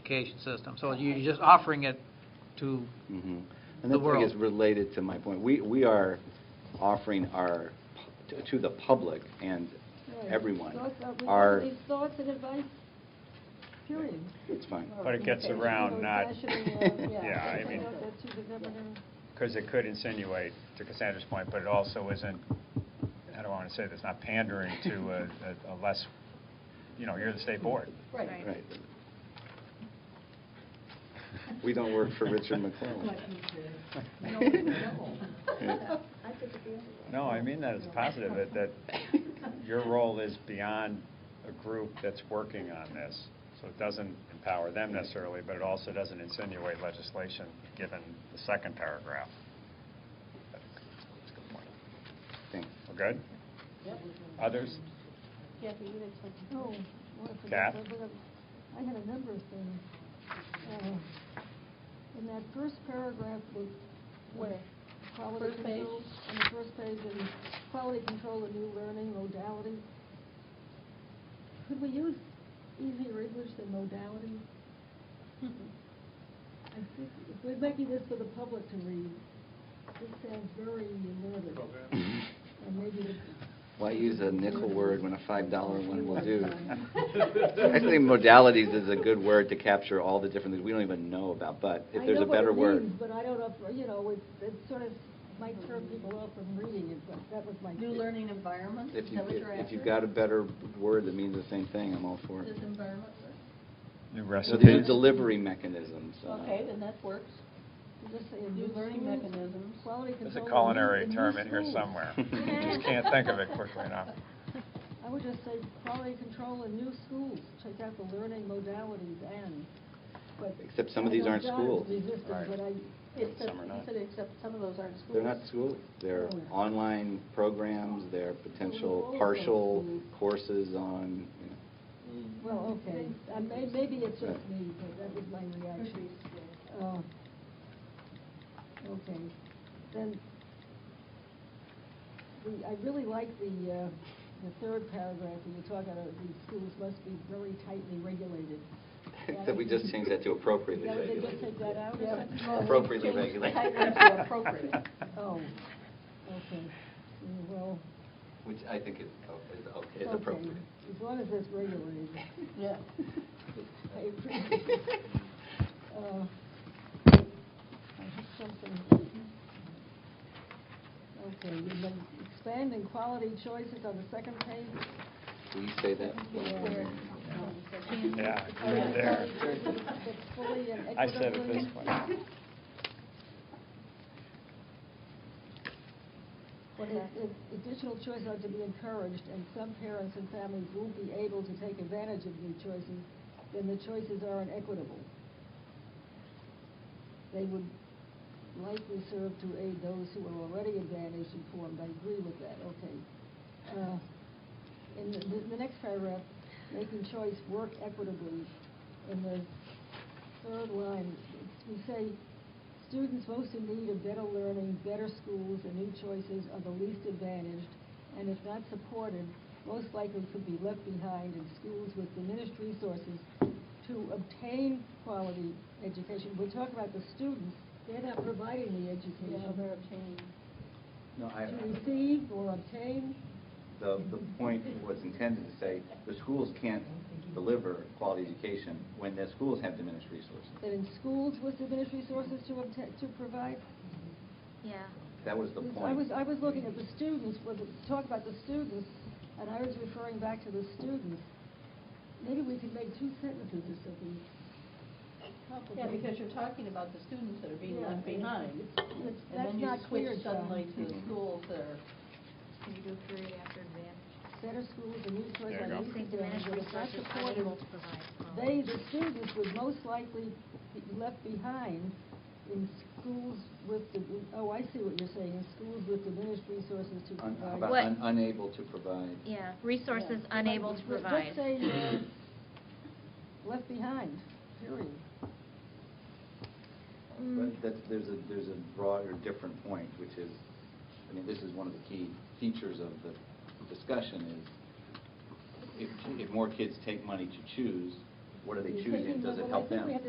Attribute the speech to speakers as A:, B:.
A: notification system. So you're just offering it to,
B: Mhm.
A: Mm-hmm. the
B: And that's, I
A: world.
B: guess, related to my point. We, we are offering our, pu- to- to the public and
C: Right.
B: everyone,
C: Thoughts, uh, we
B: our-
C: leave Thoughts and advice, period.
B: it's fine.
C: Or
D: But it gets
C: communication,
D: around
C: or
D: not-
C: fashioning, uh,
D: Yeah, I
C: that's
D: mean-
C: what- that's what the governor-
D: Because it could insinuate, to Cassandra's point, but it also isn't, I don't want to say this, not pandering to a- a- a less, you know, you're the state board.
C: Right.
B: Right. We don't work for Richard McClellan. Yeah.
D: No, I mean that as a positive, that- that your role is beyond a group that's working on this. So it doesn't empower them necessarily, but it also doesn't insinuate legislation, given the second paragraph. That's a good point.
B: Thanks.
D: We're good? Others?
C: Kathy, you had something. Oh, well, I forgot.
D: Kath?
C: I forgot. I had a number of things. Uh, In that first paragraph with, with quality
E: First page?
C: control, on the first page, and quality control of new learning modality, could we use easier English than modality? I think if we're making this for the public to read, this sounds very limited. And maybe the
B: Why use a nickel word when a $5 one will do? I
C: I
B: think modalities is a good word to capture all the different things we don't even know about, but if there's a better
C: I know what it
B: word.
C: means, but I don't know, if, you know, it, it sort of might turn people off from reading it, but that was my.
E: New learning environment,
B: If
E: is
B: you,
E: that what you're after?
B: if you've got a better word that means the same thing, I'm all for it.
E: Does environment work?
D: New
B: So there's
D: recipes?
B: delivery mechanisms. uh,
E: Okay, then that works.
C: Just say
E: New learning
C: schools,
E: mechanisms.
C: Quality control.
D: There's a
C: of new-
D: culinary
C: new
D: term in here
C: schools.
D: somewhere. Just can't think of it quickly enough.
C: I would just say quality control in new schools, check out the learning modalities and, but.
B: Except some of
C: I
B: these
C: know
B: aren't
C: John's
B: schools.
C: resistant,
D: Right.
C: but I,
E: It says,
D: Some are
E: you
D: not.
E: said except some of those aren't schools.
B: They're not schools, they're
C: Oh.
B: online programs, they're potential
C: Oh.
B: partial courses on, you know.
C: well, okay, I may, maybe it's just me, but that was my reaction. Uh, Okay, then, the- I really like the, uh, the third paragraph where you talk about these schools must be very tightly regulated.
B: Except we just changed that to appropriately
C: Yeah, they just
B: regulated.
C: take that out? or
E: Yeah.
C: something?
E: Well, we
B: Appropriately
E: changed the
B: regulated.
E: title to appropriate.
C: Oh, okay, Mm, well,
B: Which I think is, o- is okay, is
C: okay,
B: appropriate.
C: as long as it's regulated.
E: Yeah.
C: I appreciate it. Uh, I have something. Okay, you've been expanding quality choices on the second page.
B: Will you say that?
C: Yeah.
D: Yeah,
C: Oh, yeah,
D: there.
C: quality choices that's
E: uh,
C: fully and
D: I said it
C: equitably-
D: this way.
C: What is- if Additional choices are to be encouraged, and some parents and families won't be able to take advantage of new choices, then the choices are inequitable. They would likely serve to aid those who are already advantaged informed. I agree with that, okay. Uh, In the- the, the next paragraph, making choice work equitably, in the third line, we say, students most in need of better learning, better schools, and new choices are the least advantaged, and if not supported, most likely could be left behind in schools with diminished resources to obtain quality education. We're talking about the students, they're not providing the
E: Yeah,
C: education.
E: they're obtaining.
B: No, I,
C: To receive or obtain,
B: the, the point was intended to say, the schools can't deliver quality education when the schools have diminished resources.
C: that in schools with diminished resources to obtain, to provide,
F: Yeah.
B: That was the
C: I was,
B: point.
C: I was looking at the students, was it, talk about the students, and I was referring back to the students. Maybe we could make two sentences or something.
E: Yeah, because you're talking about the students that are being
C: Yeah,
E: left behind.
C: it's- it's-
E: And
C: That's
E: then you
C: not
E: switch
C: clear, John.
E: suddenly to the
B: Mhm.
E: schools that are,
F: Can you go period after advantage?
C: Better schools and new choice
D: There
C: on
D: you go.
C: these
F: Think diminished
C: exams, not
F: resources are
C: supported.
F: able to provide.
E: um,
C: They, the students, would most likely be left behind in schools with, the oh, I see what you're saying, in schools with diminished resources to
B: Un- how
C: provide.
B: about
F: What?
B: un- Unable to provide.
F: Yeah, resources
C: Yeah.
F: unable to
C: Let- let-
F: provide.
C: Let's say you're left behind, period.
B: But that, there's a, there's a broader, different point, which is, I mean, this is one of the key features of the discussion is if, if more kids take money to choose,
C: what are they
B: You're
C: choosing?
B: taking
C: Does
B: the-
C: it
B: well, I
C: help
B: think
C: them?
B: we have to